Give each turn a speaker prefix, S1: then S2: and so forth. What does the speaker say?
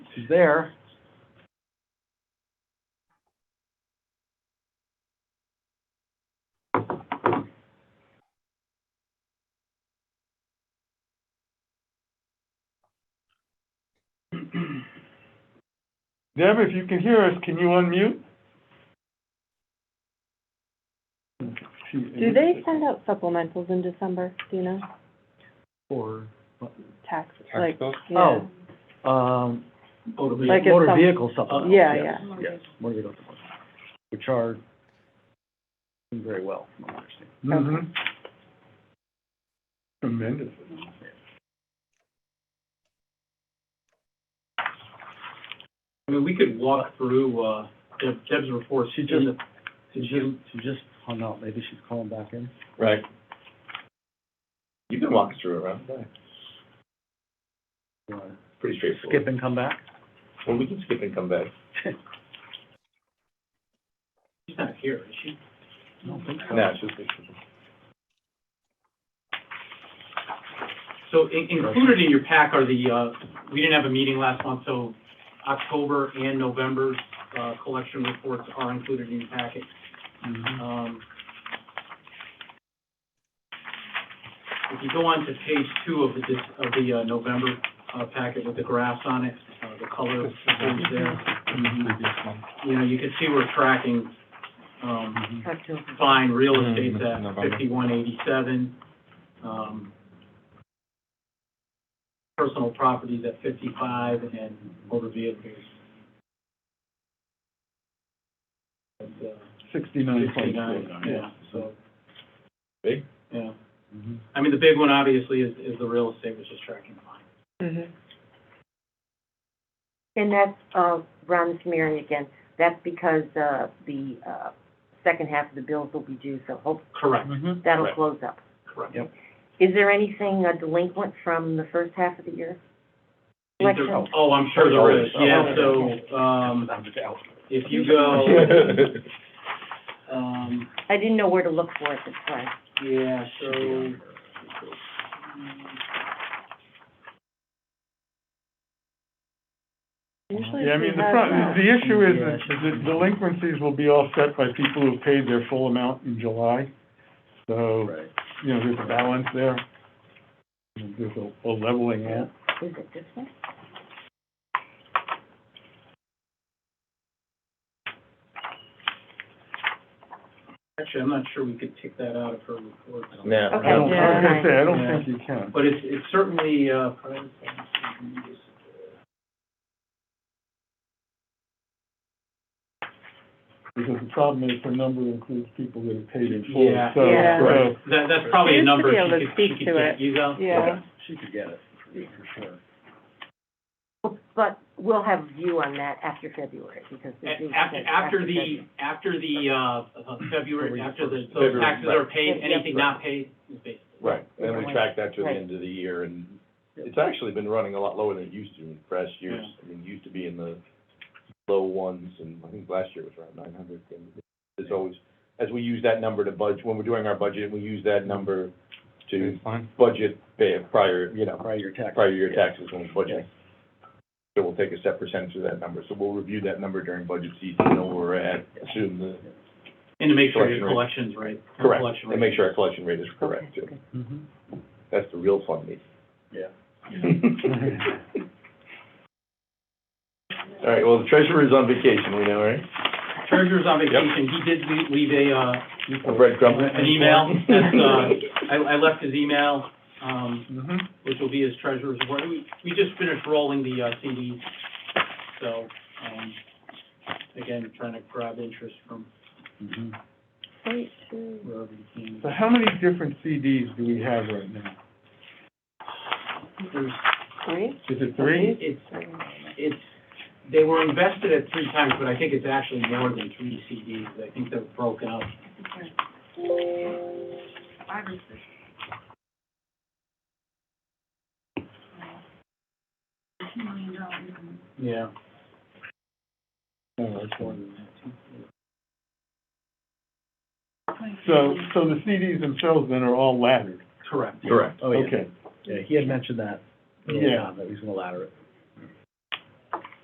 S1: She's there. Deb, if you can hear us, can you unmute? She-
S2: Do
S1: Mm-hmm.
S2: they send out supplementals in December, do you know?
S1: Or,
S2: Tax, like,
S3: bills?
S2: yeah.
S1: Oh. um, motor ve-
S2: Like it's
S1: motor
S2: some-
S1: vehicle supplemental.
S2: Yeah,
S1: yes,
S2: yeah.
S1: Yes, motor vehicle supplemental, which are doing very well, from what I understand.
S2: Mhm.
S3: Tremendously.
S4: I mean, we could walk through, uh, Deb- Deb's report.
S1: She just, she just, she just hung up, maybe she's calling back in.
S3: Right. You've been walking through it, right?
S1: You wanna
S3: Pretty straightforward.
S1: Skip and come back?
S3: Well, we can skip and come back.
S4: She's not here, is she?
S1: I don't think so.
S3: No, it's just.
S4: So in- included in your pack are the, uh, we didn't have a meeting last month, so October and November's, uh, collection reports are included in your packet.
S1: Mhm.
S4: Um, If you go on to page two of the, dis- of the uh, November, uh, packet with the graphs on it, uh, the color is there,
S1: Mm-hmm.
S4: you know, you can see we're tracking, um,
S1: Oh.
S4: fine, real
S3: Hmm,
S4: estate's
S3: that's
S4: at
S3: November.
S4: fifty-one eighty-seven. Um, personal properties at fifty-five and motor vehicles. at, uh,
S1: Sixty-nine point four.
S4: 59, yeah, so,
S3: Big?
S4: yeah.
S5: Mm-hmm.
S1: Mhm.
S4: I mean, the big one obviously is, is the real estate, which is tracking fine.
S2: Mhm.
S6: And that's, uh, Ron Smearing again, that's because, uh, the, uh, second half of the bills will be due, so hope,
S4: Correct,
S1: Mhm.
S6: that'll
S3: Right.
S6: close up.
S4: correct.
S1: Yep.
S6: Is there anything uh, delinquent from the first half of the year?
S4: Is there-
S6: Collection.
S4: Oh, I'm sure there is,
S1: Oh,
S4: yeah,
S1: okay.
S4: so, um, if you go,
S3: Right.
S4: um,
S6: I didn't know where to look for it this time.
S4: Yeah, so.
S2: Usually
S5: Yeah, I
S2: she
S5: mean, the
S2: has
S5: pro-
S2: that.
S5: the issue is
S1: Yeah,
S5: that
S1: she's-
S5: the delinquencies will be offset by people who paid their full amount in July. So,
S1: Right.
S5: you know, there's a balance there. There's a, a leveling out.
S6: Is it this one?
S4: Actually, I'm not sure we could take that out of her report.
S3: No.
S6: Okay.
S5: I don't, I was gonna say, I don't
S4: Yeah.
S5: think you can.
S4: But it's, it's certainly, uh,
S5: Because the problem is the number includes people that have paid in full.
S4: Yeah.
S5: So,
S2: Yeah.
S5: so,
S4: that, that's probably a
S2: used to
S4: number
S2: be able to
S4: she could, she
S2: speak
S4: could
S2: to
S4: get,
S2: it.
S4: you know?
S2: Yeah,
S1: She could get it, for sure.
S6: Well, But we'll have a view on that after February, because they're due
S4: A- After,
S6: after
S4: after the,
S6: February.
S4: after the, uh, uh, February,
S1: February
S4: after the,
S1: first.
S4: so
S3: February,
S4: taxes
S3: right.
S4: are paid,
S6: Yeah, yeah.
S4: anything not paid is paid.
S3: Then we track that to the end of the year, and it's actually been running a lot lower than it used to in past years. I mean, it used to be in the low ones, and I think last year was around nine hundred. And It's always, as we use that number to budget, when we're doing our budget, we use that number to budget pay prior, you know,
S1: Prior year tax.
S3: prior year taxes when we budget. So we'll take a set percentage of that number, so we'll review that number during budget season, know where we're at, assume the,
S4: And to make sure your
S3: Collection
S4: collection's right. your
S3: correct,
S4: collection
S3: and
S4: rate.
S3: make sure our collection rate is correct too.
S6: Okay, okay.
S1: Mhm.
S5: Mm-hmm.
S3: That's the real fun meeting.
S1: Yeah.
S3: All right, well, the treasurer is on vacation, we know, right?
S4: Treasurer's on vacation, he did le- leave a, uh,
S3: A breadcrumb.
S4: an email, that's, uh, I, I left his email, um,
S5: mhm.
S1: Mm-hmm.
S4: which will be his treasurer's report. We, we just finished rolling the, uh, CDs, so, um, again, trying to grab interest from
S1: Mhm.
S4: wherever you can.
S5: So how many different CDs do we have right now?
S4: There's,
S2: three?
S5: Is it three?
S4: it's, it's, they were invested at three times, but I think it's actually more than three CDs. I think they're broken up. Yeah.
S5: Oh,
S1: No, it's more than that.
S5: So, so the CDs themselves then are all laddered?
S4: Correct.
S3: Correct.
S1: Oh, yeah,
S5: Okay.
S1: yeah, he had mentioned that, in the
S5: Yeah.
S1: time, that he's gonna ladder it.